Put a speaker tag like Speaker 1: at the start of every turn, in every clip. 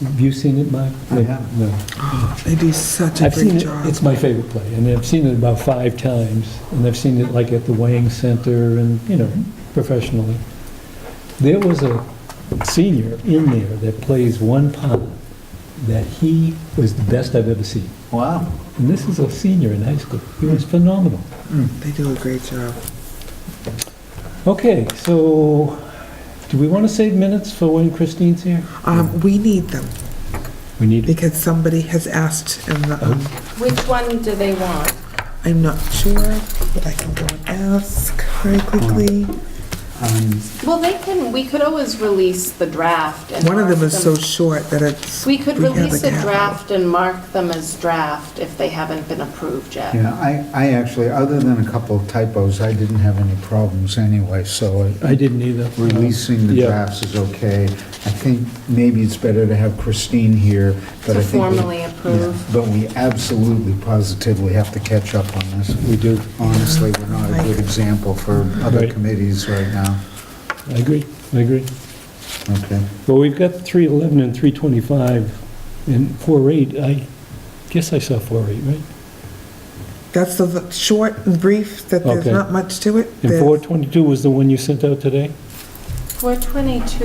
Speaker 1: Have you seen it, Mark?
Speaker 2: I haven't.
Speaker 1: No.
Speaker 3: They do such a
Speaker 1: I've seen
Speaker 3: great
Speaker 1: it,
Speaker 3: job.
Speaker 1: it's my favorite play, and I've seen it about five times, and I've seen it like at the Wang Center and, you know, professionally. There was a senior in there that plays one part that he was the best I've ever seen.
Speaker 2: Wow.
Speaker 1: And this is a senior in high school. He was phenomenal.
Speaker 3: They do a great job.
Speaker 1: Okay, so do we want to save minutes for when Christine's here?
Speaker 3: Um, we need them
Speaker 1: We need it.
Speaker 3: because somebody has asked and the-
Speaker 1: Oh.
Speaker 4: Which one do they want?
Speaker 3: I'm not sure, but I can go and ask very quickly.
Speaker 1: Uh-huh.
Speaker 2: Um,
Speaker 4: Well, they can, we could always release the draft and.
Speaker 3: One of them
Speaker 4: mark
Speaker 3: is so short that it's.
Speaker 4: We could
Speaker 3: have
Speaker 4: release a
Speaker 3: cap.
Speaker 4: draft and mark them as draft if they haven't been approved yet.
Speaker 2: Yeah, I, I actually, other than a couple of typos, I didn't have any problems anyway, so I-
Speaker 1: I didn't either.
Speaker 2: releasing the
Speaker 1: Yeah.
Speaker 2: drafts is okay. I think maybe it's better to have Christine here, but
Speaker 4: To
Speaker 2: I think... we-
Speaker 4: formally approve.
Speaker 2: Yeah, But we absolutely positively have to catch up on this.
Speaker 1: We do.
Speaker 2: Honestly, we're not a good example for other
Speaker 1: Right.
Speaker 2: committees right now.
Speaker 1: I agree, I agree.
Speaker 2: Okay.
Speaker 1: Well, we've got 311 and 325, and 48, I guess I saw 48, right?
Speaker 3: That's the- the short and brief, that there's
Speaker 1: Okay.
Speaker 3: not much to it.
Speaker 1: And
Speaker 3: There's-
Speaker 1: 422 was the one you sent out today?
Speaker 4: 422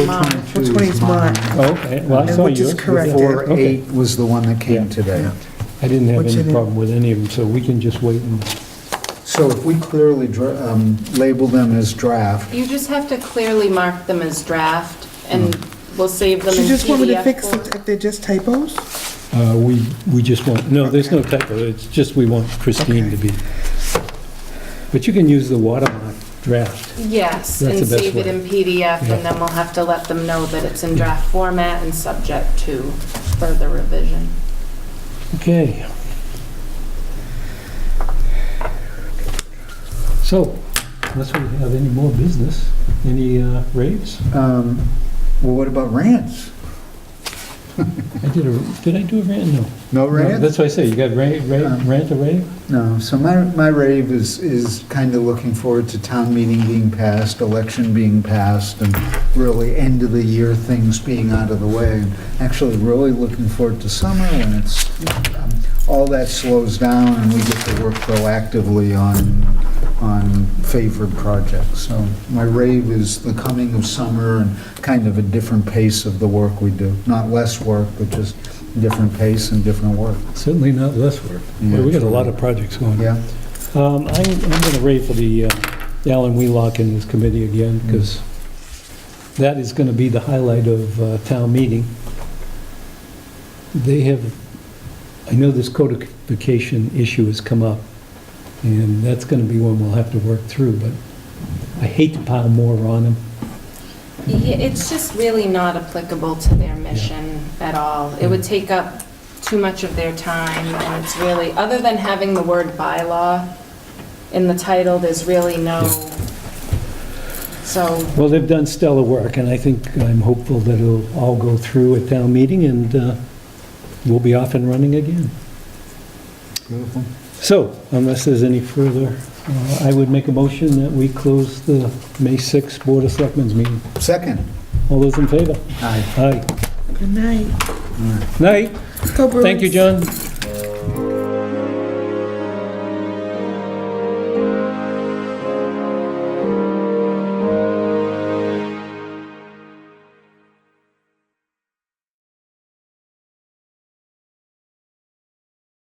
Speaker 4: was mine.
Speaker 2: 422
Speaker 3: Which one is mine?
Speaker 1: Oh, okay, well, I
Speaker 3: And
Speaker 1: saw
Speaker 3: which is
Speaker 1: yours.
Speaker 3: correct.
Speaker 2: Four eight was the one that
Speaker 1: Yeah.
Speaker 2: came today.
Speaker 1: I didn't have
Speaker 3: Which
Speaker 1: any
Speaker 3: it is.
Speaker 1: problem with any of them, so we can just wait and,
Speaker 2: So if we clearly dra- um, label them as draft,
Speaker 4: You just have to clearly mark them as draft and we'll save them in
Speaker 3: Mm. She just wanted to
Speaker 4: PDF
Speaker 3: fix
Speaker 4: form.
Speaker 3: it if they're just typos?
Speaker 1: uh, we, we just want, no, there's no typo, it's just we want Christine to be. But you can use the watermark draft.
Speaker 4: Yes,
Speaker 1: That's
Speaker 4: and
Speaker 1: the best
Speaker 4: save it
Speaker 1: way.
Speaker 4: in PDF
Speaker 1: Yeah.
Speaker 4: and then we'll have to let them know that it's in draft format and subject to further revision.
Speaker 1: Okay. So, unless we have any more business, any uh, raves?
Speaker 2: um, well, what about rants?
Speaker 1: I did a, did I do a rant? No.
Speaker 2: No
Speaker 1: No,
Speaker 2: rants?
Speaker 1: That's what I say, you got rant, rant,
Speaker 2: Um,
Speaker 1: rant or rave?
Speaker 2: No, so my, my rave is, is kind of looking forward to town meeting being passed, election being passed, and really end of the year things being out of the way. And Actually, really looking forward to summer when it's, um, all that slows down and we get to work proactively on, on favored projects. So my rave is the coming of summer and kind of a different pace of the work we do. Not less work, but just different pace and different work.
Speaker 1: Certainly not less work.
Speaker 2: Yeah,
Speaker 1: We got a
Speaker 2: true.
Speaker 1: lot of projects going.
Speaker 2: Yeah?
Speaker 1: Um, I'm, I'm gonna rave for the uh, Alan Wheelock and his committee again, because that is gonna be the highlight of uh, town meeting. They have, I know this codification issue has come up, and that's gonna be one we'll have to work through, but I hate to pile more on them.
Speaker 4: Yeah, it's just really not applicable to their mission at all. It would take up too much of their time, and it's really, other than having the word bylaw in the title, there's really no, so,
Speaker 1: Well, they've done stellar work, and I think, I'm hopeful that it'll all go through at town meeting, and uh, we'll be off and running again.
Speaker 2: Beautiful.
Speaker 1: So, unless there's any further, uh, I would make a motion that we close the May 6th Board of Selectmen's meeting.
Speaker 2: Second.
Speaker 1: All
Speaker 2: 哎
Speaker 1: those in favor?
Speaker 2: Aye.
Speaker 1: Aye.
Speaker 3: Good night.
Speaker 1: Night.
Speaker 3: Go Bruins.
Speaker 1: Thank you, John.